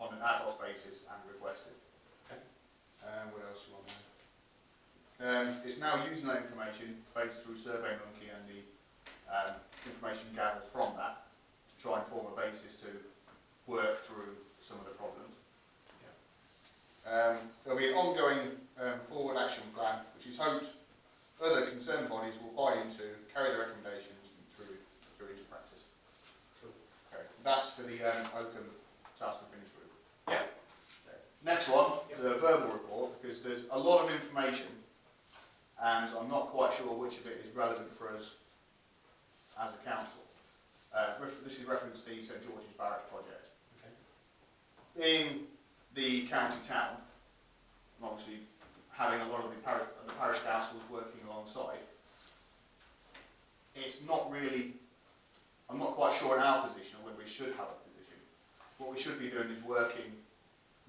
ad hoc basis and requested. Okay. Um, what else you want there? Um, it's now using that information based through Survey Monkey and the um, information gathered from that to try and form a basis to work through some of the problems. Um, there'll be an ongoing um, forward action plan, which is hoped other concerned bodies will buy into, carry the recommendations through, through into practice. Cool. Okay, that's for the um, Oakham task and finish group. Yeah. Okay. Next one, Yeah. the verbal report, because there's a lot of information, and I'm not quite sure which of it is relevant for us as a council. Uh, ref- this is reference to the St George's Barracks project. Okay. Being the county town, and obviously having a lot of the parish, the parish councils working alongside, it's not really, I'm not quite sure in our position whether we should have a position. What we should be doing is working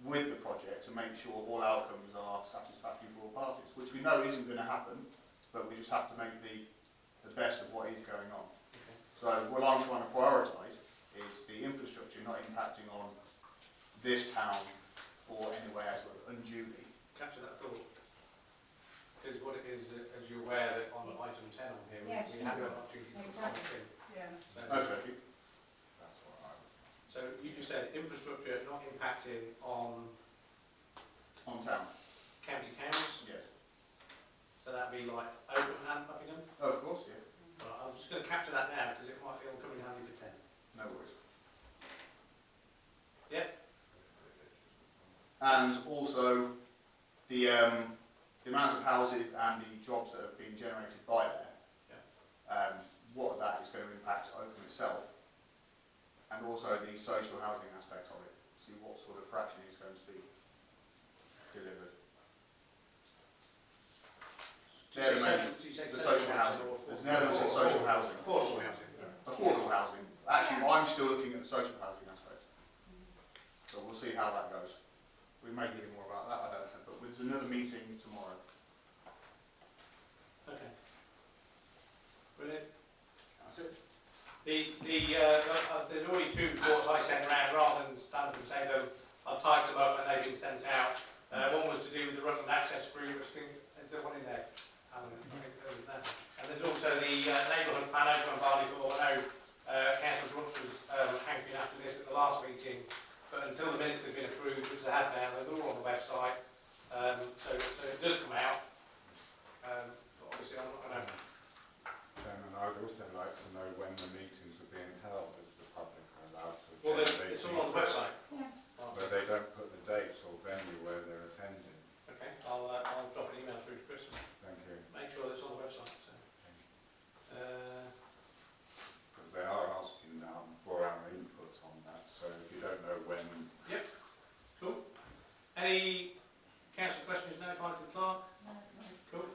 with the project to make sure all outcomes are satisfactory for all parties, which we know isn't going to happen, but we just have to make the, the best of what is going on. Okay. So what I'm trying to prioritise is the infrastructure not impacting on this town or anywhere else unduly. Capture that thought. Because what it is, uh, as you're aware, that on item 10 on here, we- Yes, we you have do. an opportunity for Exactly. something. Yeah. So- Okay. So you just said infrastructure not impacting on On town, county towns, yes. so that'd be like Oakham and Buckingham. Of course, yeah, Right, I'm just going to capture that now because it might it'll come in handy for 10. no worries. Yeah. And also, the, um, the amount of houses and the jobs that have been generated by there. Um, what that is going to impact Oakham itself, and also the social housing aspect of it, see what sort of fraction is going to be delivered. Do you say Yeah, social- do you say The social housing, or there's an affordable? element of social housing. Affordable housing. affordable housing. Actually, I'm still looking at the social housing aspect. So we'll see how that goes. We may hear more about that, I don't know, but there's another meeting tomorrow. Okay. Brilliant. That's it. The, the, uh, uh, there's already two reports I sent around, rather than stand up and say them, I've typed them up and they've been sent out. Uh, one was to do with the Rutland Access Group, which I think, is there one in there? Alan, I think there was that. And there's also the uh, neighbourhood plan over on Barley Thorpe. I know uh, Councillor Brooks was um, hankering after this at the last meeting, but until the minutes have been approved, which they have now, they're all on the website. Um, so, so it does come out. Um, but obviously, I'm not going to Chairman, I'd also like to know when the meetings are being held, as the public are allowed to. Well, attend there's- these it's all on the meetings, website. Yeah. But they don't put the dates or venue where they're attending. Okay, I'll, uh, I'll drop an email through to Chris and Thank you, make sure that's on the website, so. Uh, because they are asking um, for our input on that, so if you don't know when, any council questions notified to the clerk? Um, Cool.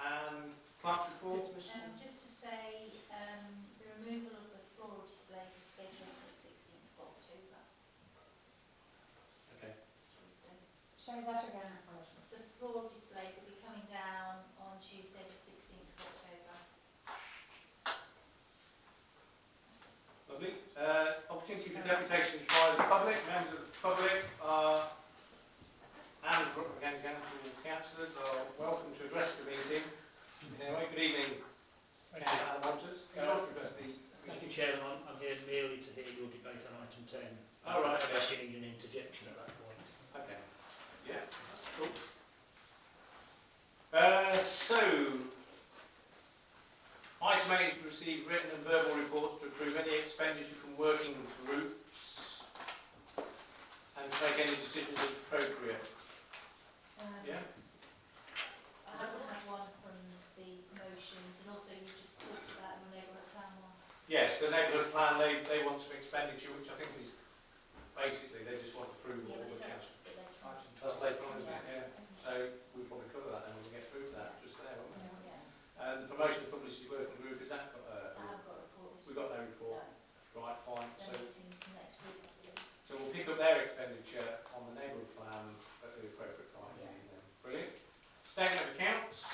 And clerk's report? Um, just to say, um, the removal of the floral displays is scheduled for the 16th of October. Okay, Tuesday. Say that again. The floral displays will be coming down on Tuesday, the 16th of October. lovely. Uh, opportunity for deputations by the public, members of the public are, and from- again, again, from the councillors are welcome to address the meeting. Anyway, good evening, Thank you. councillor Alan Walters. You're welcome to address the Thank you, meeting. Chairman. I'm, I'm here merely to hear your debate on item 10. All right, okay. Unless you need an interjection at that point. Okay. Yeah, that's cool. Uh, so, item eight is to receive written and verbal reports to approve any expenditure from working groups and to make any decisions as appropriate. Um, Yeah? I haven't had one from the promotions, and also you just talked about the neighbourhood plan one. Yes, the neighbourhood plan, they, they want some expenditure, which I think is basically they just want approval of Yeah, but the it says council. that they can. That's later on, isn't it? Yeah. So we'll probably cover that then when we get through that, just there, won't we? Yeah, And the promotion of publicity working group, is that, uh, I have got reports. we got no report? No, Right, fine, the so, meeting's next week, I believe. so we'll pick up their expenditure on the neighbourhood plan at the appropriate time. Yeah. Brilliant. Statement of accounts, um, Um, uh,